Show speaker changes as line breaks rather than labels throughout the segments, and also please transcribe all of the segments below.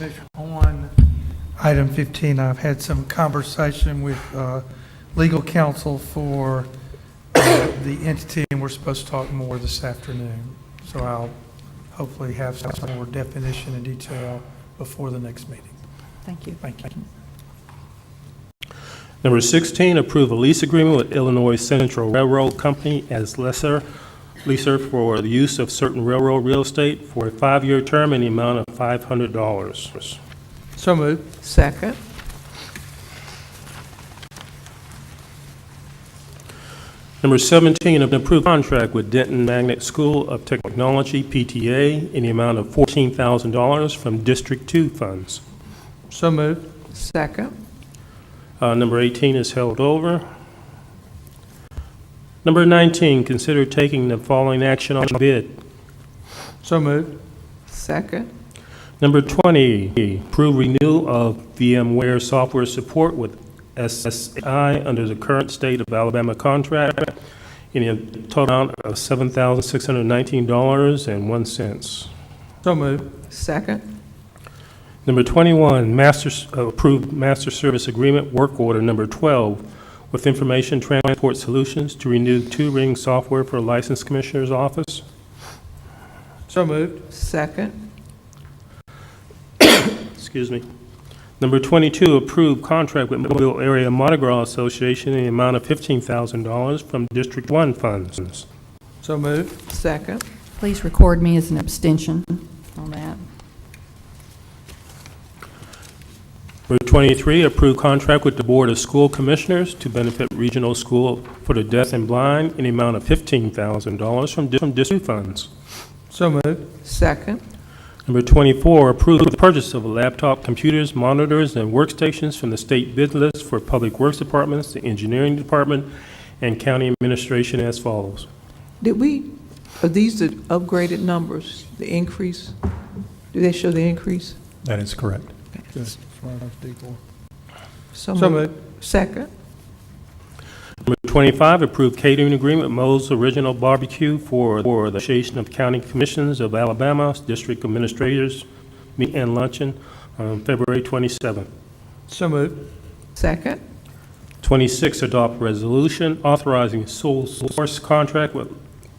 Commissioner, On item 15, I've had some conversation with uh, legal counsel for uh, the entity, and we're supposed to talk more this afternoon. So I'll hopefully have some more definition and detail before the next meeting.
Thank you.
Thank you.
Number 16, approve a lease agreement with Illinois Central Railroad Company as lesser leaser for the use of certain railroad real estate for a five-year term in the amount of $500.
So moved.
Second.
Number 17, approve contract with Denton Magnet School of Technology, PTA, in the amount of $14,000 from District 2 funds.
So moved.
Second.
Uh, Number 18 is held over. Number 19, consider taking the following action on bid.
So moved.
Second.
Number 20, approve renewal of VMware software support with SSI under the current state of Alabama contract in a total amount of $7,619.01.
So moved.
Second.
Number 21, masters, uh, approved master service agreement work order number 12 with Information Transport Solutions to renew two-ring software for License Commissioner's Office.
So moved.
Second.
Excuse me. Number 22, approve contract with Mobile Area Motogral Association in the amount of $15,000 from District 1 funds.
So moved.
Second.
Please record me as an abstention on that.
Number 23, approve contract with the Board of School Commissioners to benefit Regional School for the Deaf and Blind in the amount of $15,000 from di- from District 2 funds.
So moved.
Second.
Number 24, approve the purchase of laptop computers, monitors, and workstations from the state bid list for Public Works Departments, the Engineering Department, and County Administration as follows.
Did we, are these the upgraded numbers, the increase? Do they show the increase?
That is correct.
So
So
moved.
moved.
Second.
Number 25, approve catering agreement with Mo's Original Barbecue for for the Association of County Commissions of Alabama, District Administrators Meet and Luncheon on February 27th.
So moved.
Second.
26, adopt resolution authorizing sole source contract with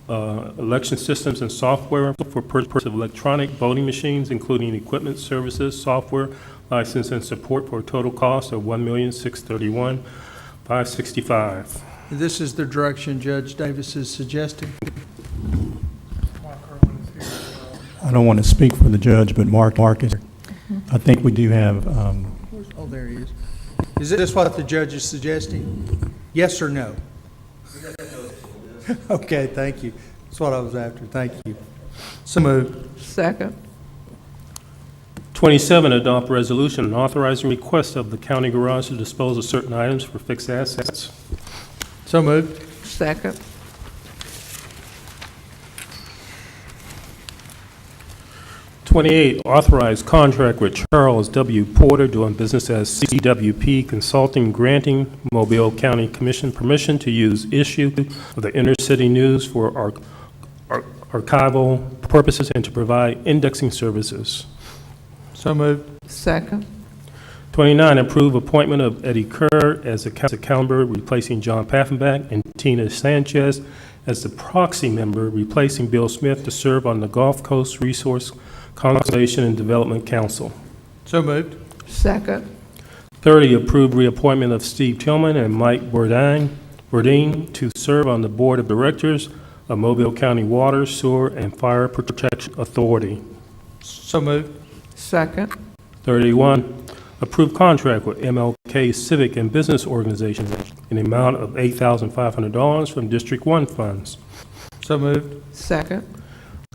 uh, election systems and software for purchase of electronic voting machines, including equipment, services, software, license, and support for a total cost of $1,631,565.
This is the direction Judge Davis is suggesting.
I don't want to speak for the judge, but Mark, Mark is, I think we do have, um,
Oh, there he is. Is this what the judge is suggesting? Yes or no? Okay, thank you. That's what I was after. Thank you.
So moved.
Second.
27, adopt resolution authorizing request of the county garage to dispose of certain items for fixed assets.
So moved.
Second.
Twenty-eight, authorize contract with Charles W. Porter doing business as CWP Consulting granting Mobile County Commission permission to use issue of the inner city news for ar- ar- archival purposes and to provide indexing services.
So moved.
Second.
29, approve appointment of Eddie Kerr as the council caliber, replacing John Paffenbach, and Tina Sanchez as the proxy member, replacing Bill Smith to serve on the Gulf Coast Resource Conservation and Development Council.
So moved.
Second.
30, approve reappointment of Steve Tillman and Mike Burdine Burdine to serve on the Board of Directors of Mobile County Water, Sewer, and Fire Protection Authority.
So moved.
Second.
31, approve contract with MLK Civic and Business Organization in the amount of $8,500 from District 1 funds.
So moved.
Second.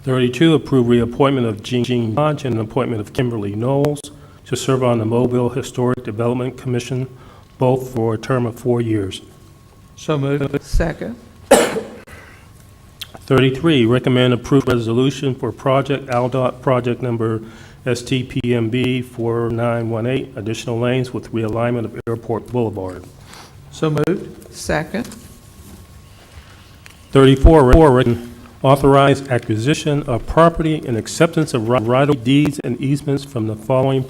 32, approve reappointment of Jean- Jean Lodge and appointment of Kimberly Knowles to serve on the Mobile Historic Development Commission, both for a term of four years.
So moved.
Second.
33, recommend approved resolution for project ALDOT project number STPMB 4918, additional lanes with realignment of Airport Boulevard.
So moved.
Second.
34, re- authorize acquisition of property and acceptance of ri- right-of-way deeds and easements from the following